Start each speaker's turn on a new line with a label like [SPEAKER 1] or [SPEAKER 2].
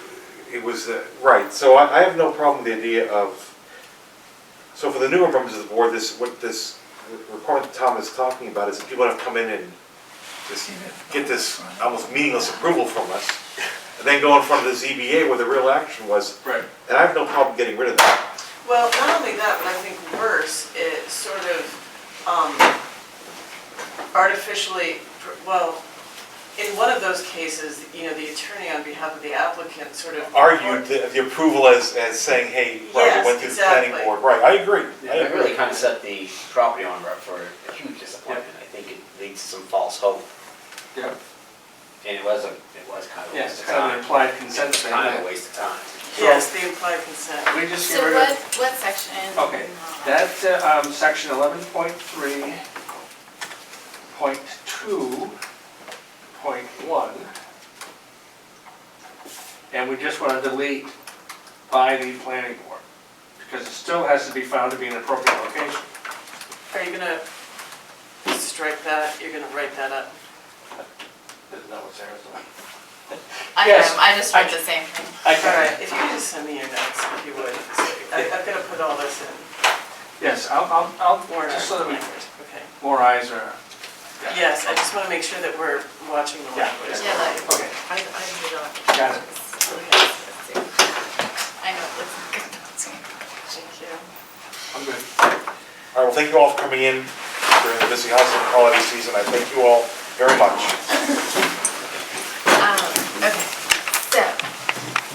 [SPEAKER 1] it was, uh, right, so I, I have no problem with the idea of, so for the newer members of the board, this, what this requirement that Tom is talking about is that people have to come in and just get this almost meaningless approval from us, and then go in front of the ZBA where the real action was,
[SPEAKER 2] Right.
[SPEAKER 1] and I have no problem getting rid of that.
[SPEAKER 3] Well, not only that, but I think worse, it sort of um, artificially, well, in one of those cases, you know, the attorney on behalf of the applicant sort of.
[SPEAKER 1] Argued the, the approval as, as saying, hey, right,
[SPEAKER 3] Yes,
[SPEAKER 1] it went through the planning
[SPEAKER 3] exactly.
[SPEAKER 1] board, right, I agree, I
[SPEAKER 4] It
[SPEAKER 1] agree.
[SPEAKER 4] really kind of set the property owner up for a huge disappointment. I think it leads to some false hope,
[SPEAKER 2] Yeah,
[SPEAKER 4] and it was a, it was kind of a
[SPEAKER 2] yeah,
[SPEAKER 4] waste
[SPEAKER 2] it's
[SPEAKER 4] of
[SPEAKER 2] kind of an
[SPEAKER 4] time.
[SPEAKER 2] implied consent
[SPEAKER 4] It's
[SPEAKER 2] thing.
[SPEAKER 4] kind of a waste of time.
[SPEAKER 3] Yes, the implied consent.
[SPEAKER 2] We just
[SPEAKER 5] So
[SPEAKER 2] get rid
[SPEAKER 5] what,
[SPEAKER 2] of,
[SPEAKER 5] what section?
[SPEAKER 2] okay, that's, uh, um, section eleven point three, point two, point one. And we just want to delete by the planning board, because it still has to be found to be an appropriate location.
[SPEAKER 3] Are you gonna strike that? You're gonna write that up?
[SPEAKER 2] Isn't that what's there?
[SPEAKER 5] I
[SPEAKER 2] Yes.
[SPEAKER 5] am, I just read the same thing.
[SPEAKER 2] I
[SPEAKER 3] All right,
[SPEAKER 2] can,
[SPEAKER 3] if you could just send me your notes, if you would. I- I'm gonna put all this in.
[SPEAKER 2] yes, I'll, I'll, I'll,
[SPEAKER 3] Warrant
[SPEAKER 2] just so that
[SPEAKER 3] article
[SPEAKER 2] we,
[SPEAKER 3] language, okay.
[SPEAKER 2] more eyes are. yeah.
[SPEAKER 3] Yes, I just wanna make sure that we're watching the
[SPEAKER 2] Yeah.
[SPEAKER 3] language.
[SPEAKER 5] Yeah, like,
[SPEAKER 2] Okay,
[SPEAKER 5] I, I read all.
[SPEAKER 2] Got it.
[SPEAKER 5] I know, it's good.
[SPEAKER 3] Thank you.
[SPEAKER 2] I'm good.
[SPEAKER 1] All right, well, thank you all for coming in during the busy housing holiday season. I thank you all very much.
[SPEAKER 5] Um,